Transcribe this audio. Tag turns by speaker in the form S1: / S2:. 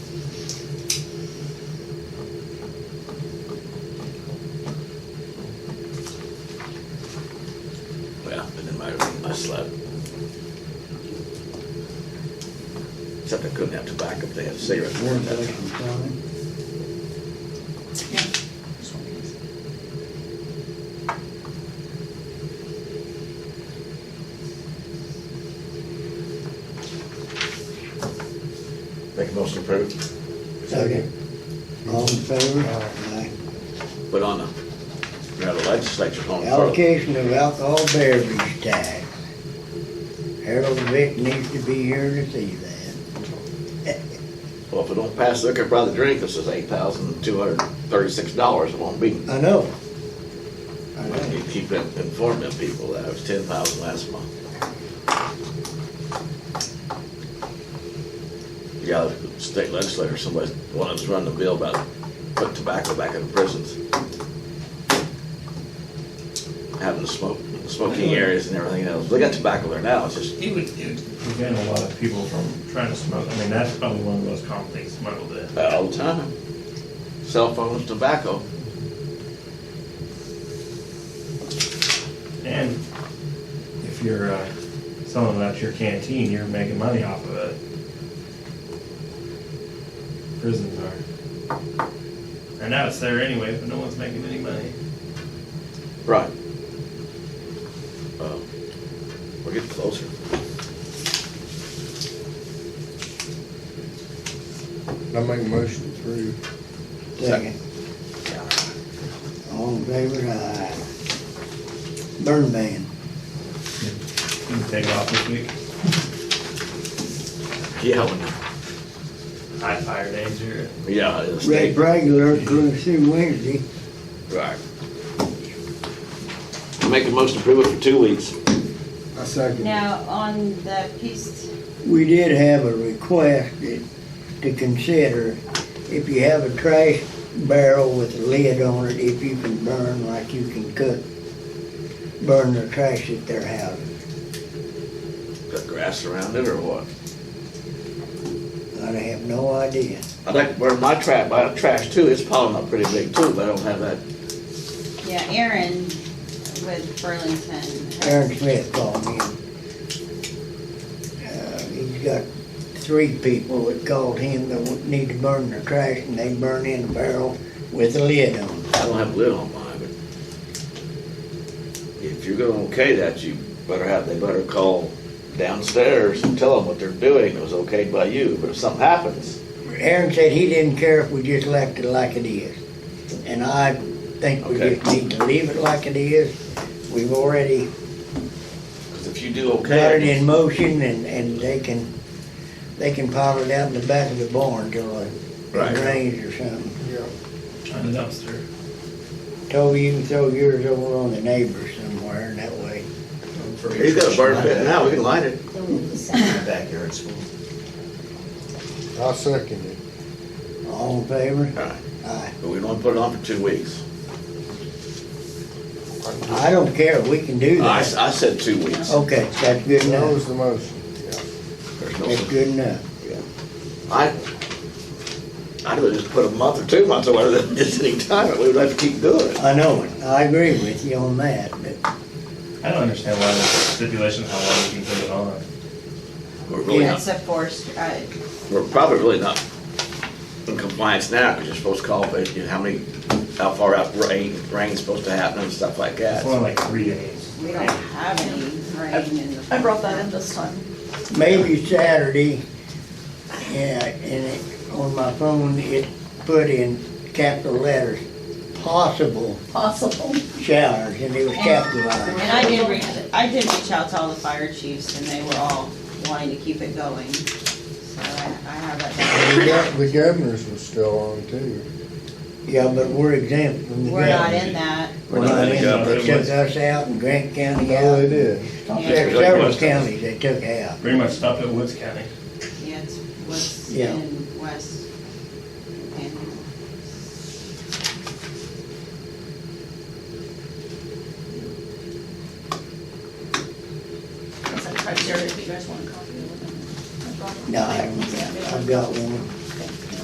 S1: slab. Except I couldn't have tobacco, they had cigarettes.
S2: Warren's actually counting.
S1: Make a motion approved.
S2: Second. All in favor? Aye.
S1: But on the, you know, the legislature on the
S2: Allocation of alcohol beverage tax. Harold Vick needs to be here to see that.
S1: Well, if it don't pass liquor by the drink, this is eight thousand two hundred thirty-six dollars. It won't be.
S2: I know. I
S1: I
S2: know.
S1: need to keep them- informing them people that it was ten thousand last month. Yeah, the state legislature, somebody wanted to run the bill about put tobacco back in the prisons. Having the smoke, smoking areas and everything else. They got tobacco there now, it's just,
S3: It would, it would
S4: prevent a lot of people from trying to smoke. I mean, that's probably one of the most common things smuggled in.
S1: uh, all the time. Cell phones, tobacco.
S4: And if you're uh, selling it out your canteen, you're making money off of it. Prisons are. I know it's there anyway, but no one's making any money.
S1: Right. Well, Uh, We're getting closer.
S5: I make a motion through.
S2: Second. All in favor? Aye. Burn ban.
S4: You can take it off this week.
S1: Yeah, when-
S4: High fire danger.
S1: yeah, it's
S2: Red regular, including through Wednesday.
S1: Right. Make a motion to approve it for two weeks.
S5: I second.
S6: Now, on the piece,
S2: We did have a request that- to consider if you have a trash barrel with a lid on it, if you can burn like you can cook, burn the trash at their house.
S1: Got grass around it or what?
S2: I have no idea.
S1: I'd like to burn my trash, my trash too, it's piling up pretty big too, but I don't have that.
S6: yeah, Aaron with Burlington.
S2: Aaron Smith called me. Uh, He's got three people that called him that would need to burn their trash and they burn in a barrel with a lid on it.
S1: I don't have a lid on mine, but if you're gonna okay that, you better have, they better call downstairs and tell them what they're doing, it was okayed by you, but if something happens,
S2: Aaron said he didn't care if we just left it like it is. And I think we
S1: Okay.
S2: just need to leave it like it is. We've already
S1: cause if you do
S2: got it
S1: okay,
S2: in motion and, and they can, they can pile it out in the back of the barn till it
S1: Right.
S2: rains or something.
S5: Yeah.
S4: On the dumpster.
S2: Toby, you can throw yours over on the neighbors somewhere and that way
S1: he's got a burn pit now, we can light it.
S7: Oh,
S8: Backyard's full.
S5: I second it.
S2: All in favor?
S1: Alright,
S2: Aye.
S1: but we don't wanna put it on for two weeks.
S2: I don't care, we can do
S1: I,
S2: that.
S1: s- I said two weeks.
S2: Okay, that's good
S5: That
S2: enough.
S5: was the motion, yeah.
S1: There's no-
S2: That's good enough.
S1: I, I'd have just put a month or two months or whatever, than just any time, we would have to keep doing it.
S2: I know it, I agree with you on that, but
S4: I don't understand why there's stipulations how long you can put it on.
S1: We're really
S6: It's
S1: not,
S6: a forced, uh,
S1: we're probably really not in compliance now, because you're supposed to call, but you know, how many, how far out rain, rain's supposed to happen and stuff like
S4: It's
S1: that.
S4: only like three days.
S6: we don't have any rain in the.
S7: I brought that in this time.
S2: maybe Saturday, yeah, and it, on my phone, it put in capital letters, possible
S7: Possible.
S2: showers, and it was capitalized.
S6: And I did, reach I did reach out to all the fire chiefs and they were all wanting to keep it going. So I, I have that.
S5: The gov- The governors were still on too.
S2: Yeah, but we're exempt from the.
S6: We're not
S2: government.
S6: in that.
S1: We're not in the
S2: They
S4: government.
S2: took us out and Grant County out.
S5: No, Oh, they did.
S6: Yeah,
S2: There's several counties they took out.
S4: Pretty much stopped at Woods County.
S6: yeah, it's what's
S2: Yeah.
S6: in West. Panhandle.
S7: That's a criteria if you guys want a copy of it.
S2: No, I haven't got, I've got one.